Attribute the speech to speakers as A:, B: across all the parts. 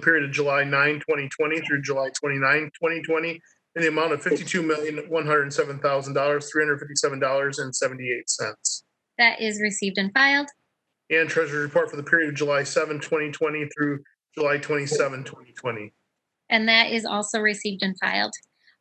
A: period of July 9, 2020 through July 29, 2020, in the amount of $52,107,357.78.
B: That is received and filed.
A: And Treasurer's Report for the period of July 7, 2020 through July 27, 2020.
B: And that is also received and filed.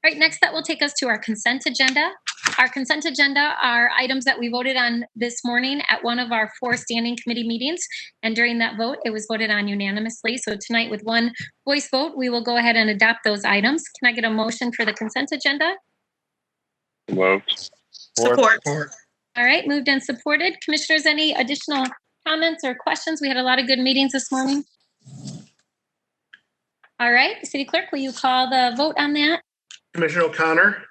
B: All right, next that will take us to our consent agenda. Our consent agenda are items that we voted on this morning at one of our four standing committee meetings. And during that vote, it was voted on unanimously. So tonight, with one voice vote, we will go ahead and adopt those items. Can I get a motion for the consent agenda?
C: Moved.
D: Support.
B: All right, moved and supported. Commissioners, any additional comments or questions? We had a lot of good meetings this morning. All right, City Clerk, will you call the vote on that?
A: Commissioner O'Connor,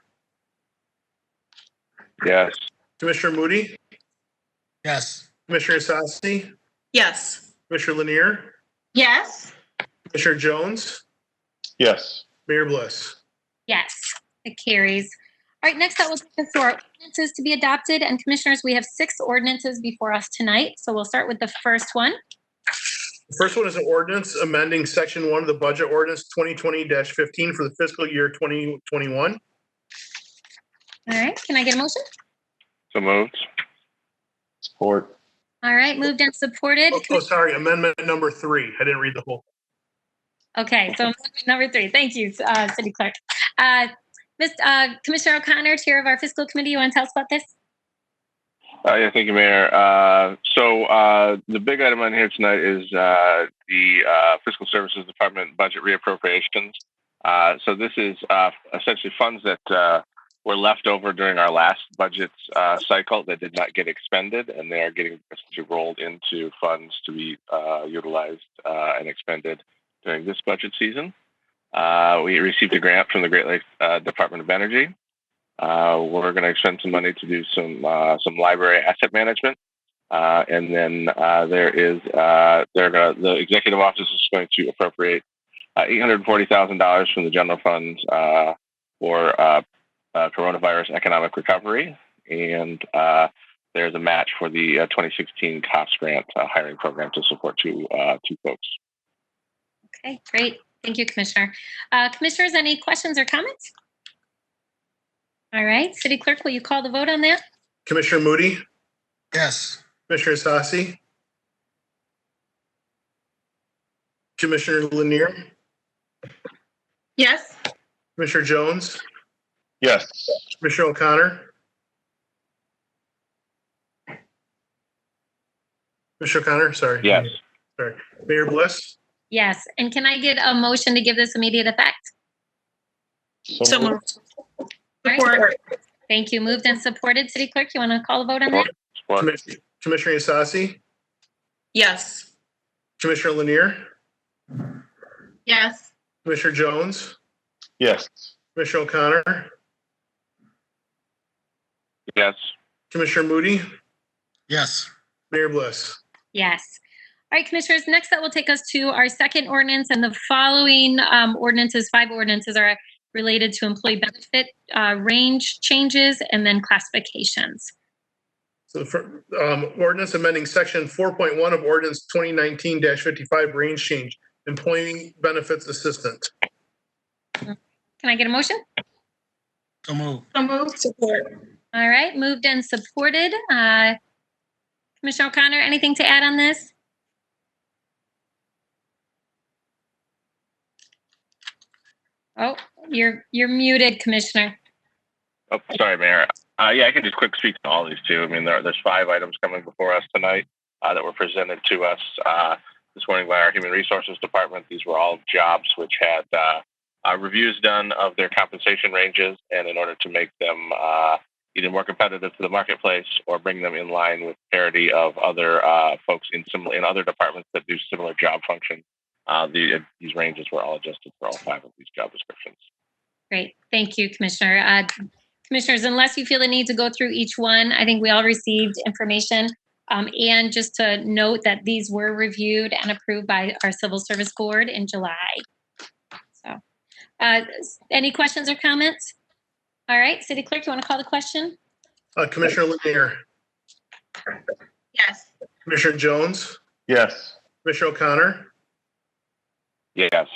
C: Yes.
A: Commissioner Moody,
E: Yes.
A: Commissioner Sassi,
D: Yes.
A: Commissioner Lanier,
D: Yes.
A: Commissioner Jones,
C: Yes.
A: Mayor Bliss.
B: Yes, it carries. All right, next that will take us to our ordinances to be adopted. And Commissioners, we have six ordinances before us tonight. So we'll start with the first one.
A: The First one is an ordinance amending section one of the budget ordinance twenty twenty fifteen for the fiscal year twenty twenty-one.
B: All right, can I get a motion?
C: So moved. Support.
B: All right, moved and supported.
A: Oh, oh, sorry, amendment number three. I didn't read the whole.
B: Okay, so amendment number three. Thank you, uh, City Clerk. Uh, Ms. Uh, Commissioner O'Connor, Chair of our Fiscal Committee, you want to tell us about this?
C: Uh, yeah, thank you, Mayor. Uh, so uh, the big item on here tonight is uh, the uh, Fiscal Services Department budget reappropriations. Uh, so this is uh, essentially funds that uh, were left over during our last budget uh, cycle that did not get expended, and they are getting essentially rolled into funds to be uh, utilized uh, and expended during this budget season. Uh, we received a grant from the Great Lakes uh, Department of Energy. Uh, we're going to expend some money to do some uh, some library asset management, uh, and then uh, there is uh, they're gonna, the executive office is going to appropriate uh, eight hundred forty thousand dollars from the general fund uh, for uh, uh, coronavirus economic recovery, and uh, there's a match for the uh, 2016 COPS grant uh, hiring program to support two uh, two folks.
B: Okay, great. Thank you, Commissioner. Uh, Commissioners, any questions or comments? All right, City Clerk, will you call the vote on that?
A: Commissioner Moody,
E: Yes.
A: Commissioner Sassi. Commissioner Lanier,
D: Yes.
A: Commissioner Jones,
C: Yes.
A: Commissioner O'Connor. Commissioner O'Connor, sorry.
C: Yes.
A: Mayor Bliss.
B: Yes, and can I get a motion to give this immediate effect?
D: So moved.
B: All right.
D: Support.
B: Thank you. Moved and supported. City Clerk, you want to call the vote on that?
C: Support.
A: Commis- Commissioner Sassi,
D: Yes.
A: Commissioner Lanier,
D: Yes.
A: Commissioner Jones,
C: Yes.
A: Commissioner O'Connor,
C: Yes.
A: Commissioner Moody,
E: Yes.
A: Mayor Bliss.
B: Yes. All right, Commissioners, next that will take us to our second ordinance and the following um, ordinances, five ordinances are related to employee benefit, uh, range changes, and then classifications.
A: So for um, ordinance amending section four point one of ordinance twenty nineteen fifty-five range change, employee benefits assistant.
B: Can I get a motion?
E: So move.
D: So moved. Support.
B: All right, moved and supported. Uh, Commissioner O'Connor, anything to add on this? Oh, you're, you're muted, Commissioner.
C: Oh, sorry, Mayor. Uh, yeah, I can just quick speak to all these two. I mean, there, there's five items coming before us tonight uh, that were presented to us uh, this morning by our Human Resources Department. These were all jobs which had uh, uh, reviews done of their compensation ranges, and in order to make them uh, either more competitive to the marketplace or bring them in line with parity of other uh, folks in similar in other departments that do similar job functions, uh, the, these ranges were all adjusted for all five of these job descriptions.
B: Great, thank you, Commissioner. Uh, Commissioners, unless you feel the need to go through each one, I think we all received information. Um, and just to note that these were reviewed and approved by our Civil Service Board in July. So, uh, s- any questions or comments? All right, City Clerk, you want to call the question?
A: Uh, Commissioner Lanier,
D: Yes.
A: Commissioner Jones,
C: Yes.
A: Commissioner O'Connor,
C: Yes.